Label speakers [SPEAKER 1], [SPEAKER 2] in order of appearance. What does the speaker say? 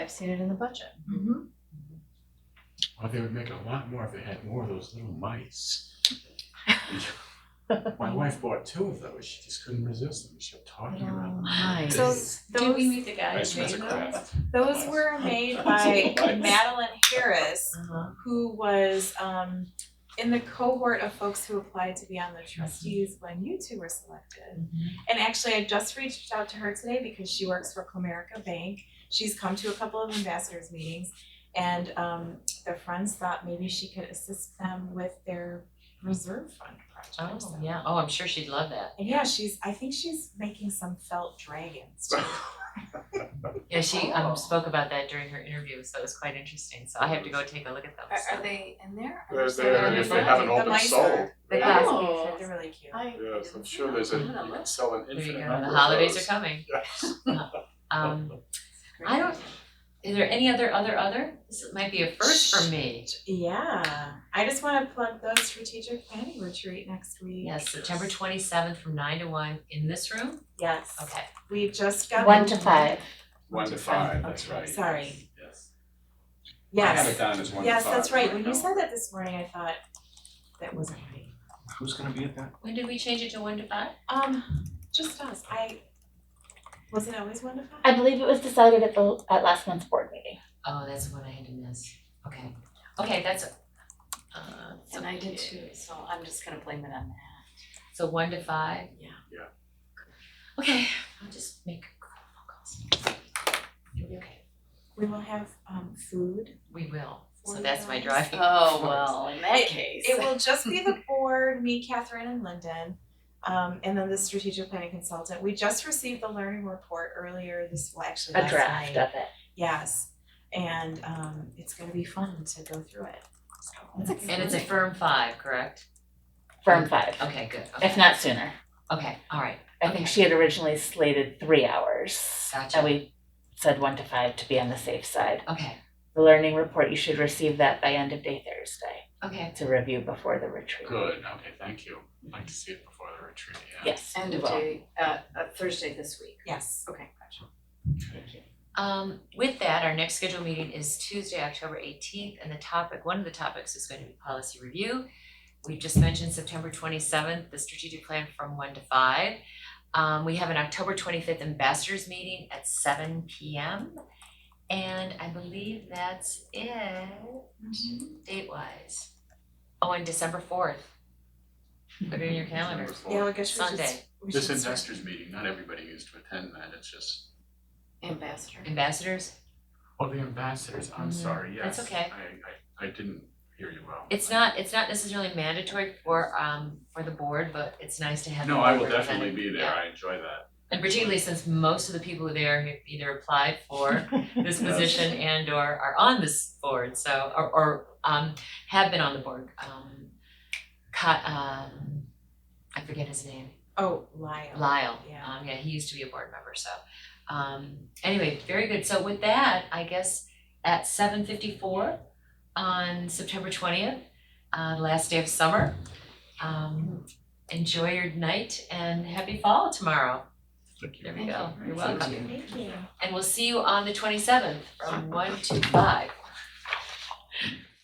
[SPEAKER 1] I've seen it in the budget.
[SPEAKER 2] Mm-hmm.
[SPEAKER 3] Well, they would make a lot more if they had more of those little mice. My wife bought two of those. She just couldn't resist them. She kept talking
[SPEAKER 1] Oh
[SPEAKER 3] about them.
[SPEAKER 1] Nice.
[SPEAKER 4] So
[SPEAKER 2] Did we
[SPEAKER 4] those,
[SPEAKER 2] meet the guys?
[SPEAKER 3] Nice as a craft.
[SPEAKER 4] those were made by Madeline Harris,
[SPEAKER 1] Uh-huh.
[SPEAKER 4] who was um in the cohort of folks who applied to be on the
[SPEAKER 1] Mm-hmm.
[SPEAKER 4] trustees when you two were selected. And actually, I just reached out to her today because she works for Comerica Bank. She's come to a couple of ambassadors meetings, and um, their friends thought maybe she could assist them with their reserve fund project.
[SPEAKER 1] Oh,
[SPEAKER 4] so-
[SPEAKER 1] yeah. Oh, I'm sure she'd love that.
[SPEAKER 4] And yeah, she's. I think she's making some felt dragons. too.
[SPEAKER 1] Yeah, she um
[SPEAKER 2] Oh.
[SPEAKER 1] spoke about that during her interview, so it was quite interesting. So I have to go take a look at those.
[SPEAKER 2] Are, are they in there? Are
[SPEAKER 3] They're
[SPEAKER 2] still
[SPEAKER 3] there
[SPEAKER 2] in
[SPEAKER 3] if
[SPEAKER 2] the
[SPEAKER 3] they haven't
[SPEAKER 4] The
[SPEAKER 3] all been
[SPEAKER 4] mice
[SPEAKER 3] sold.
[SPEAKER 4] are-
[SPEAKER 1] The
[SPEAKER 3] Yeah.
[SPEAKER 1] glass.
[SPEAKER 2] Oh.
[SPEAKER 4] They're really cute.
[SPEAKER 2] I-
[SPEAKER 3] Yes, I'm sure there's a,
[SPEAKER 2] I'm gonna
[SPEAKER 3] you
[SPEAKER 2] look.
[SPEAKER 3] can sell an
[SPEAKER 1] There you
[SPEAKER 3] infinite
[SPEAKER 1] go.
[SPEAKER 3] number
[SPEAKER 1] The
[SPEAKER 3] of
[SPEAKER 1] holidays are
[SPEAKER 3] those.
[SPEAKER 1] coming.
[SPEAKER 3] Yes.
[SPEAKER 1] Um, I don't, is there any other, other, other? This might be a first for me.
[SPEAKER 4] Yeah, I just want to plug the strategic planning retreat next week.
[SPEAKER 1] Yes, September twenty-seventh from nine to one in this room?
[SPEAKER 4] Yes.
[SPEAKER 1] Okay.
[SPEAKER 4] We just got
[SPEAKER 5] One to five.
[SPEAKER 3] One to five, that's right.
[SPEAKER 4] Sorry.
[SPEAKER 3] Yes. I
[SPEAKER 4] Yes.
[SPEAKER 3] had it down as one to five.
[SPEAKER 4] Yes, that's right. When
[SPEAKER 3] No.
[SPEAKER 4] you said that this morning, I thought that wasn't right.
[SPEAKER 6] Who's gonna be at that?
[SPEAKER 1] When did we change it to one to five?
[SPEAKER 4] Um, just us. I was it always one to five?
[SPEAKER 5] I believe it was decided at the at last month's board meeting.
[SPEAKER 1] Oh, that's the one I had to miss. Okay. Okay, that's, uh,
[SPEAKER 2] middle? And I did too, so I'm just gonna blame it on that.
[SPEAKER 1] so one to five?
[SPEAKER 4] Yeah.
[SPEAKER 3] Yeah.
[SPEAKER 1] Okay, I'll just make a couple phone calls. You'll be okay.
[SPEAKER 4] We will have um food.
[SPEAKER 1] We will. So
[SPEAKER 4] Forty
[SPEAKER 1] that's my
[SPEAKER 4] dollars.
[SPEAKER 1] driving.
[SPEAKER 2] Oh, well, in that case.
[SPEAKER 4] It will just be the board, me, Catherine, and Lyndon. Um, and then the strategic planning consultant. We just received the learning report earlier this, well, actually
[SPEAKER 5] A
[SPEAKER 4] last night.
[SPEAKER 5] draft of it.
[SPEAKER 4] Yes, and um it's gonna be fun to go through it. So
[SPEAKER 1] And it's a firm five, correct?
[SPEAKER 5] Firm five,
[SPEAKER 1] Okay, good.
[SPEAKER 5] if
[SPEAKER 1] Okay,
[SPEAKER 5] not sooner.
[SPEAKER 1] okay, all right.
[SPEAKER 5] I think
[SPEAKER 1] Okay.
[SPEAKER 5] she had originally slated three hours.
[SPEAKER 1] Gotcha.
[SPEAKER 5] And we said one to five to be on the safe side.
[SPEAKER 1] Okay,
[SPEAKER 5] The learning report, you should receive that by end of day Thursday
[SPEAKER 1] okay.
[SPEAKER 5] to review before the retreat.
[SPEAKER 3] Good, okay, thank you. I'd like to see it before the retreat, yeah.
[SPEAKER 5] Yes,
[SPEAKER 2] End
[SPEAKER 5] we
[SPEAKER 2] of
[SPEAKER 5] will.
[SPEAKER 2] day, uh, uh, Thursday this week.
[SPEAKER 4] Yes,
[SPEAKER 2] Okay, gotcha. Thank you.
[SPEAKER 1] Um, with that, our next scheduled meeting is Tuesday, October eighteenth, and the topic, one of the topics is going to be policy review. We just mentioned September twenty-seventh, the strategic plan from one to five. Um, we have an October twenty-fifth ambassadors meeting at seven P M. And I believe that's it, date-wise. Oh, and December fourth. Put it in your calendar,
[SPEAKER 3] Wonderful.
[SPEAKER 4] yeah, well, I guess we should.
[SPEAKER 1] Sunday.
[SPEAKER 4] we
[SPEAKER 3] This
[SPEAKER 4] should-
[SPEAKER 3] investors meeting, not everybody used to attend that, it's just,
[SPEAKER 2] Ambassador.
[SPEAKER 1] ambassadors.
[SPEAKER 3] oh, the ambassadors, I'm
[SPEAKER 1] Mhm.
[SPEAKER 3] sorry, yes.
[SPEAKER 1] That's okay.
[SPEAKER 3] I, I, I didn't hear you well.
[SPEAKER 1] It's not, it's not necessarily mandatory for, um, for the board, but it's nice to have.
[SPEAKER 3] No,
[SPEAKER 1] them
[SPEAKER 3] I will
[SPEAKER 1] represented.
[SPEAKER 3] definitely be there,
[SPEAKER 1] Yeah.
[SPEAKER 3] I enjoy that.
[SPEAKER 1] And particularly since most of the people who are there have either applied for this
[SPEAKER 3] Yes.
[SPEAKER 1] position and or are on this board, so, or, or, um, have been on the board, um, Ca- um, I forget his name,
[SPEAKER 4] Oh, Lyle.
[SPEAKER 1] Lyle,
[SPEAKER 4] Yeah.
[SPEAKER 1] um, yeah, he used to be a board member, so, um, anyway, very good, so with that, I guess at seven fifty-four on September twentieth, uh, last day of summer, um, enjoy your night and happy fall tomorrow,
[SPEAKER 3] Thank you.
[SPEAKER 1] there we go, you're
[SPEAKER 3] Thank you.
[SPEAKER 1] welcome.
[SPEAKER 4] Thank you.
[SPEAKER 1] And we'll see you on the twenty-seventh from one to five.